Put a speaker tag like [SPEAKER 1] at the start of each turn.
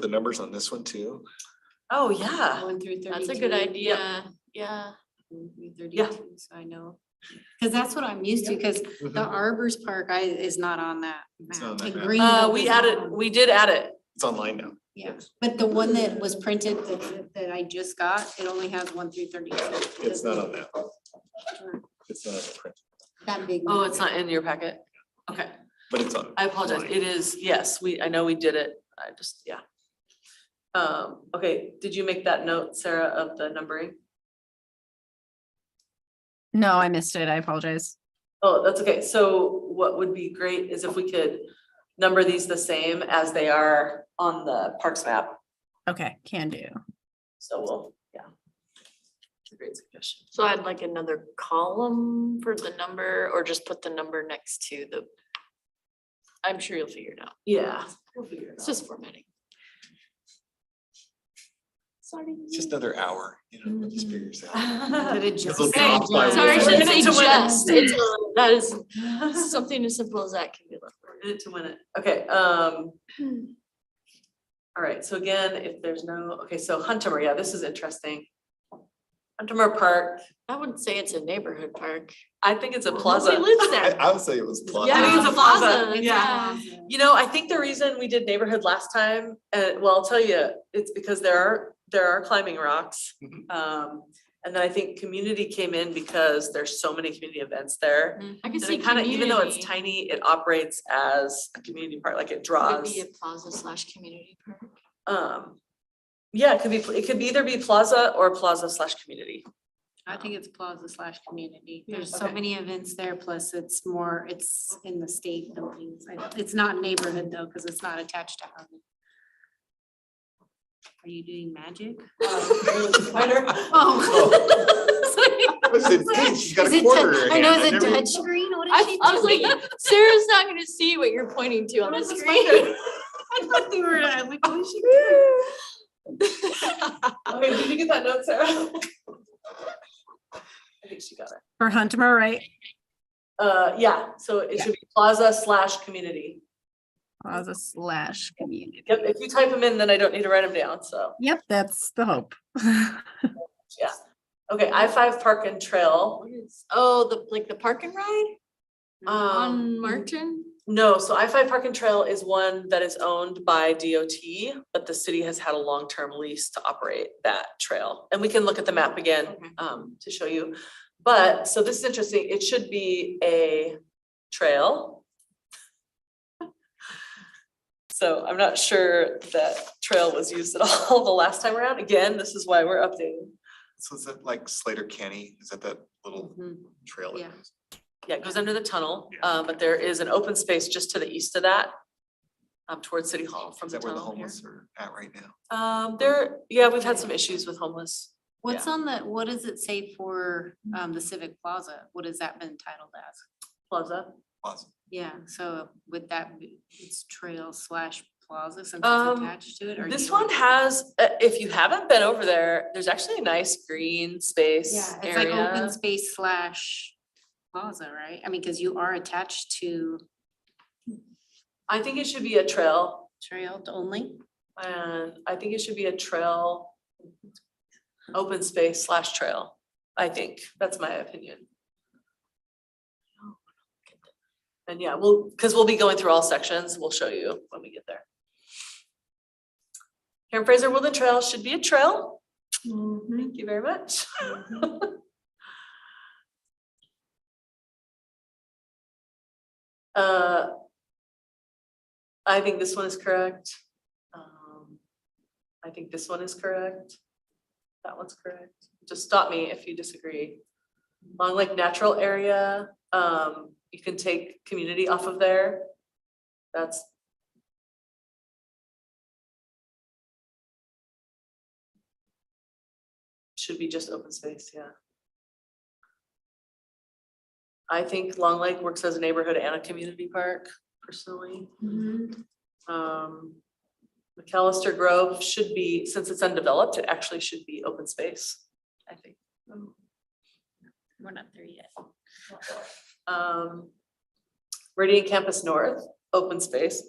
[SPEAKER 1] the numbers on this one too?
[SPEAKER 2] Oh, yeah.
[SPEAKER 3] Going through thirty-two.
[SPEAKER 4] That's a good idea, yeah.
[SPEAKER 3] Going through Thirty-two, so I know. Cause that's what I'm used to, cause the Arbors Park I, is not on that
[SPEAKER 1] Mm-hmm. It's not on
[SPEAKER 3] map.
[SPEAKER 1] that
[SPEAKER 3] The
[SPEAKER 1] map.
[SPEAKER 3] green
[SPEAKER 2] Uh,
[SPEAKER 3] one
[SPEAKER 2] we
[SPEAKER 3] is
[SPEAKER 2] added,
[SPEAKER 3] on-
[SPEAKER 2] we did add it.
[SPEAKER 1] It's online now.
[SPEAKER 3] Yeah, but the one that was printed that, that I just got, it only has one through thirty-two.
[SPEAKER 1] It's not on that. It's not on the print,
[SPEAKER 3] That big.
[SPEAKER 2] Oh,
[SPEAKER 3] map.
[SPEAKER 2] it's not in your packet? Okay,
[SPEAKER 1] but it's on.
[SPEAKER 2] I apologize. It is, yes, we, I know we did it. I just, yeah. Um, okay, did you make that note, Sarah, of the numbering?
[SPEAKER 5] No, I missed it. I apologize.
[SPEAKER 2] Oh, that's okay. So what would be great is if we could number these the same as they are on the parks map.
[SPEAKER 5] Okay, can do.
[SPEAKER 2] So we'll, yeah. It's a Great suggestion.
[SPEAKER 4] So I'd like another column for the number or just put the number next to the. I'm sure you'll figure it out.
[SPEAKER 2] Yeah. we'll figure it
[SPEAKER 4] It's
[SPEAKER 2] out.
[SPEAKER 4] just formatting. Sorry.
[SPEAKER 1] It's just another hour, you know, we'll just figure this out.
[SPEAKER 3] But it just-
[SPEAKER 1] little
[SPEAKER 4] Hey,
[SPEAKER 1] drop by
[SPEAKER 4] Sorry, I
[SPEAKER 1] was-
[SPEAKER 4] shouldn't say
[SPEAKER 1] It's
[SPEAKER 4] just. It's, uh, That is something as simple as that can be left.
[SPEAKER 2] We're in it to win it. Okay, um,
[SPEAKER 4] Hmm.
[SPEAKER 2] all right, so again, if there's no, okay, so Huntermore, yeah, this is interesting. Huntermore Park,
[SPEAKER 4] I wouldn't say it's a neighborhood park.
[SPEAKER 2] I think it's a
[SPEAKER 4] Nobody
[SPEAKER 2] plaza.
[SPEAKER 4] lives
[SPEAKER 1] I,
[SPEAKER 4] there.
[SPEAKER 1] I would say it was. plot-
[SPEAKER 2] I think it's a plaza, yeah.
[SPEAKER 4] yeah.
[SPEAKER 2] You know, I think the reason we did neighborhood last time, uh, well, I'll tell you, it's because there are, there are climbing rocks.
[SPEAKER 1] Mhm.
[SPEAKER 2] Um, and then I think community came in because there's so many community events there.
[SPEAKER 4] I can
[SPEAKER 2] And
[SPEAKER 4] see
[SPEAKER 2] it kind of, even though it's
[SPEAKER 4] community
[SPEAKER 2] tiny, it operates as a community park, like it
[SPEAKER 4] Could
[SPEAKER 2] draws.
[SPEAKER 4] be a plaza slash community park.
[SPEAKER 2] Um, yeah, it could be, it could either be plaza or plaza slash community.
[SPEAKER 3] I think it's plaza slash community.
[SPEAKER 4] Yeah.
[SPEAKER 3] There's so
[SPEAKER 2] Um, Okay.
[SPEAKER 3] many events there, plus it's more, it's in the state buildings. I don't- It's not neighborhood though, because it's not attached to housing. Are you doing magic?
[SPEAKER 2] Uh,
[SPEAKER 3] Oh.
[SPEAKER 1] I was saying, hey, she's got
[SPEAKER 3] Is
[SPEAKER 1] a
[SPEAKER 3] it
[SPEAKER 1] quarter. in
[SPEAKER 3] tou- I know,
[SPEAKER 1] hand.
[SPEAKER 3] is it
[SPEAKER 1] never-
[SPEAKER 3] touch screen? What is
[SPEAKER 4] I,
[SPEAKER 3] she
[SPEAKER 4] I was
[SPEAKER 3] doing?
[SPEAKER 4] like, Sarah's not gonna see what you're pointing to on the screen.
[SPEAKER 3] I thought they were, I'm like, what is she
[SPEAKER 2] Okay, Oh, did you get that note, Sarah? I think she got it.
[SPEAKER 5] For Hunter, right?
[SPEAKER 2] Uh, yeah, so it should be plaza slash community.
[SPEAKER 5] Plaza slash community.
[SPEAKER 2] Yep, if you type them in, then I don't need to write them down, so,
[SPEAKER 5] Yep, that's the hope.
[SPEAKER 2] yeah. Okay, I five park and trail.
[SPEAKER 4] Oh, the, like the park and ride
[SPEAKER 2] Um,
[SPEAKER 4] on Martin?
[SPEAKER 2] No, so I five Park and Trail is one that is owned by DOT, but the city has had a long-term lease to operate that trail. And we can look at the map again,
[SPEAKER 4] Okay.
[SPEAKER 2] um, to show you. But, so this is interesting, it should be a trail. So I'm not sure that trail was used at all the last time around. Again, this is why we're updating.
[SPEAKER 1] So is that like Slater Canny? Is that that little
[SPEAKER 2] Mm-hmm.
[SPEAKER 3] Mhm.
[SPEAKER 1] trail? that
[SPEAKER 3] Yeah.
[SPEAKER 1] goes-
[SPEAKER 2] Yeah, it goes under the tunnel,
[SPEAKER 1] Yeah.
[SPEAKER 2] uh, but there is an open space just to the east of that, um, towards City Hall from
[SPEAKER 1] Is
[SPEAKER 2] the
[SPEAKER 1] that where the
[SPEAKER 2] tunnel here.
[SPEAKER 1] homeless are at right now?
[SPEAKER 2] Um, there, yeah, we've had some issues with homeless.
[SPEAKER 3] What's on the, what does it say for, um, the Civic Plaza? What has that been titled as?
[SPEAKER 2] Plaza.
[SPEAKER 1] Awesome.
[SPEAKER 3] Yeah, so would that be, it's trail slash plaza since
[SPEAKER 2] Um,
[SPEAKER 3] it's attached to it or? do
[SPEAKER 2] This
[SPEAKER 3] you
[SPEAKER 2] one
[SPEAKER 3] want-
[SPEAKER 2] has, uh, if you haven't been over there, there's actually a nice green space
[SPEAKER 3] Yeah, it's like open
[SPEAKER 2] area.
[SPEAKER 3] space slash plaza, right? I mean, cause you are attached to
[SPEAKER 2] I think it should be a trail
[SPEAKER 3] trail only.
[SPEAKER 2] and I think it should be a trail. Open space slash trail, I think. That's my opinion. And yeah, we'll, because we'll be going through all sections. We'll show you when we get there. Karen Fraser Woodland Trail should be a trail. Thank you very much. Uh, I think this one is correct. Um, I think this one is correct. That one's correct. Just stop me if you disagree. Long Lake Natural Area, um, you can take community off of there. That's should be just open space, yeah. I think Long Lake works as a neighborhood and a community park personally. Um, McAllister Grove should be, since it's undeveloped, it actually should be open space, I think.
[SPEAKER 3] We're not there yet.
[SPEAKER 2] Um, Meridian Campus North, open space.